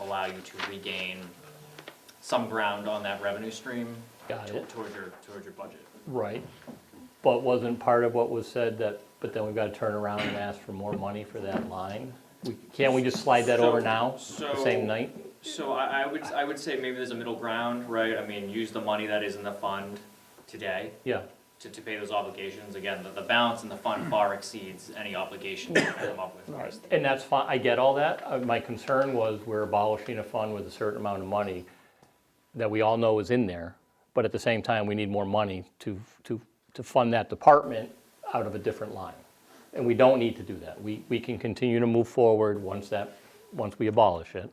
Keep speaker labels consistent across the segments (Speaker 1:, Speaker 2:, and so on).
Speaker 1: allow you to regain some ground on that revenue stream
Speaker 2: Got
Speaker 1: to-
Speaker 2: it.
Speaker 1: toward your, toward your budget.
Speaker 2: Right, but wasn't part of what was said that, but then we've got to turn around and ask for more money for that line? We- Can't we just slide that over
Speaker 1: So-
Speaker 2: now, the
Speaker 1: so-
Speaker 2: same night?
Speaker 1: So I, I would, I would say maybe there's a middle ground, right? I mean, use the money that is in the fund today
Speaker 2: Yeah,
Speaker 1: to, to pay those obligations. Again, the, the balance in the fund far exceeds any obligation that we come up with.
Speaker 2: and that's fine, I get all that. Uh, My concern was we're abolishing a fund with a certain amount of money that we all know is in there, but at the same time, we need more money to, to, to fund that department out of a different line. And we don't need to do that. We, we can continue to move forward once that, once we abolish it.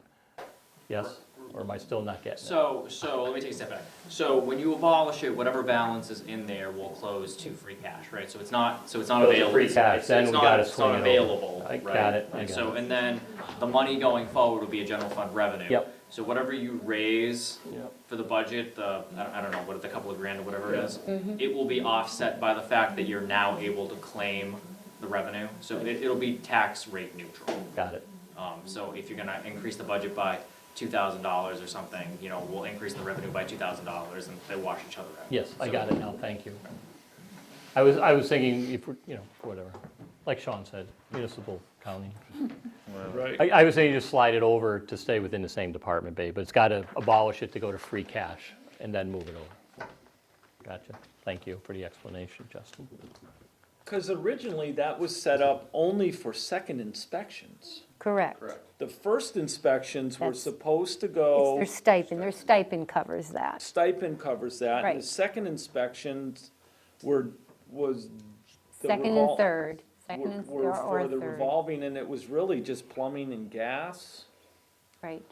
Speaker 2: Yes, or am I still not getting it?
Speaker 1: So, so let me take a step back. So when you abolish it, whatever balance is in there will close to free cash, right? So it's not, so it's not
Speaker 2: Goes to
Speaker 1: available.
Speaker 2: free
Speaker 1: It's not-
Speaker 2: cash, then
Speaker 1: it's
Speaker 2: we
Speaker 1: not-
Speaker 2: gotta
Speaker 1: It's not
Speaker 2: swing it over.
Speaker 1: available,
Speaker 2: I
Speaker 1: right?
Speaker 2: got it, I
Speaker 1: And
Speaker 2: got
Speaker 1: so,
Speaker 2: it.
Speaker 1: and then the money going forward will be a general fund revenue.
Speaker 2: Yep.
Speaker 1: So whatever you raise
Speaker 2: Yep.
Speaker 1: for the budget, the, I don't- I don't know, what, the couple of grand or whatever it is, it will be offset by the fact that you're now able to claim the revenue. So it, it'll be tax rate neutral.
Speaker 2: Got it.
Speaker 1: Um, so if you're gonna increase the budget by two thousand dollars or something, you know, we'll increase the revenue by two thousand dollars and they wash each other out.
Speaker 2: Yes, I got it now, thank you. I was, I was thinking, if, we're- you know, whatever, like Sean said, municipal county.
Speaker 3: Right.
Speaker 2: I, I was saying just slide it over to stay within the same department, babe, but it's got to abolish it to go to free cash and then move it over. Gotcha, thank you for the explanation, Justin.
Speaker 3: Because originally that was set up only for second inspections.
Speaker 4: Correct.
Speaker 3: The first inspections were
Speaker 4: That's-
Speaker 3: supposed to
Speaker 4: It's
Speaker 3: go,
Speaker 4: their stipend, their stipend covers that.
Speaker 3: stipend covers that. and The
Speaker 4: Right.
Speaker 3: second inspections were, was. the
Speaker 4: Second and
Speaker 3: revol-
Speaker 4: third,
Speaker 3: were-
Speaker 4: second and,
Speaker 3: were
Speaker 4: or or
Speaker 3: For the
Speaker 4: third,
Speaker 3: revolving, and it was really just plumbing and gas.
Speaker 4: right.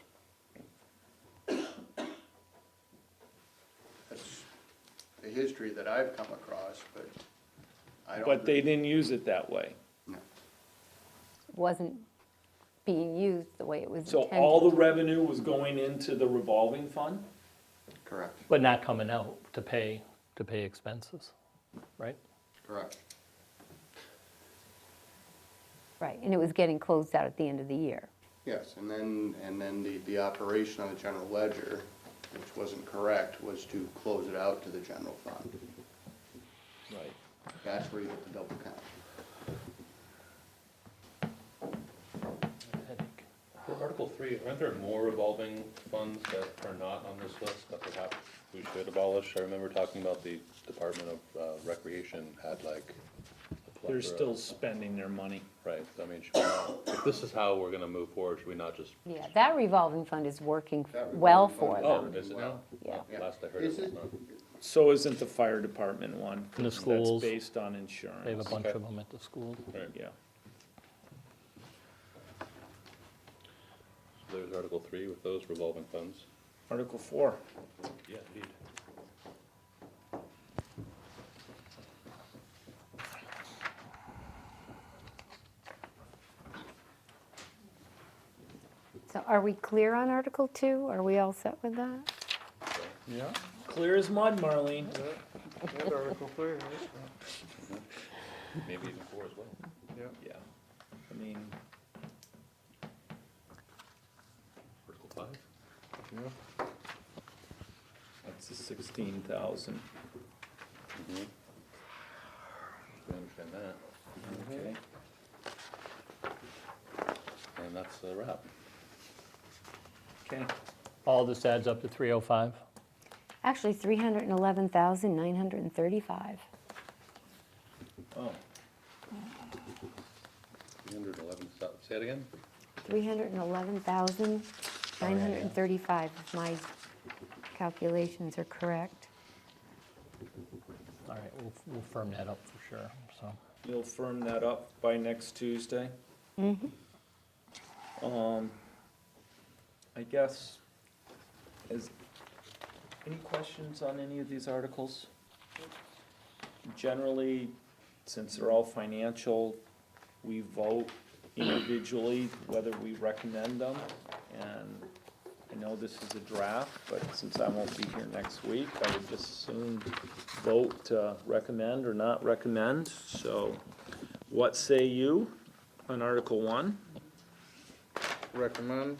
Speaker 5: That's the history that I've come across, but I don't.
Speaker 3: But they didn't use it that way.
Speaker 4: Wasn't being used the way it was
Speaker 3: So
Speaker 4: intended.
Speaker 3: all the revenue was going into the revolving fund?
Speaker 5: Correct,
Speaker 2: But not coming out to pay, to pay expenses, right?
Speaker 5: correct.
Speaker 4: Right, and it was getting closed out at the end of the year.
Speaker 5: Yes, and then, and then the, the operation on the general ledger, which wasn't correct, was to close it out to the general fund.
Speaker 3: Right.
Speaker 5: That's where you get the double count.
Speaker 2: Headache.
Speaker 6: For Article three, aren't there more revolving funds that are not on this list that perhaps we should abolish? I remember talking about the Department of uh, Recreation had like. a
Speaker 3: They're
Speaker 6: plethora-
Speaker 3: still spending their money.
Speaker 6: Right, I mean, should we not, if this is how we're gonna move forward, should we not just,
Speaker 4: Yeah, that revolving fund is working
Speaker 5: That revolving
Speaker 4: well
Speaker 5: fund
Speaker 4: for
Speaker 5: is
Speaker 4: them.
Speaker 6: oh, is it now?
Speaker 4: Yeah.
Speaker 6: Oh, Last I heard it
Speaker 5: Is
Speaker 6: was
Speaker 5: it?
Speaker 6: not.
Speaker 3: So isn't the fire department one?
Speaker 2: And the
Speaker 3: 'cause
Speaker 2: schools.
Speaker 3: That's based on insurance.
Speaker 2: They have a bunch
Speaker 6: Okay.
Speaker 2: of them at the school.
Speaker 6: Right,
Speaker 3: Yeah.
Speaker 6: so there's Article three with those revolving funds.
Speaker 3: Article four.
Speaker 6: Yeah, indeed.
Speaker 4: So are we clear on Article Two? Are we all set with that?
Speaker 3: Clear as mud, Marlene.
Speaker 6: Maybe even four as well.
Speaker 3: Yeah. I mean,
Speaker 6: Article five?
Speaker 3: that's the sixteen thousand.
Speaker 6: I understand that.
Speaker 3: Okay.
Speaker 6: And that's a wrap.
Speaker 3: Okay.
Speaker 2: All this adds up to 305?
Speaker 4: Actually, three hundred and eleven thousand, nine hundred and thirty-five.
Speaker 3: Oh,
Speaker 6: Three hundred eleven, say it again?
Speaker 4: Three hundred and eleven thousand, nine hundred and thirty-five, if my calculations are correct.
Speaker 2: All right, we'll, we'll firm that up for sure, so.
Speaker 3: you'll firm that up by next Tuesday? Um, I guess, is, any questions on any of these articles? Generally, since they're all financial, we vote individually whether we recommend them. And I know this is a draft, but since I won't be here next week, I would just soon vote to recommend or not recommend. So what say you on Article One?
Speaker 7: Recommend.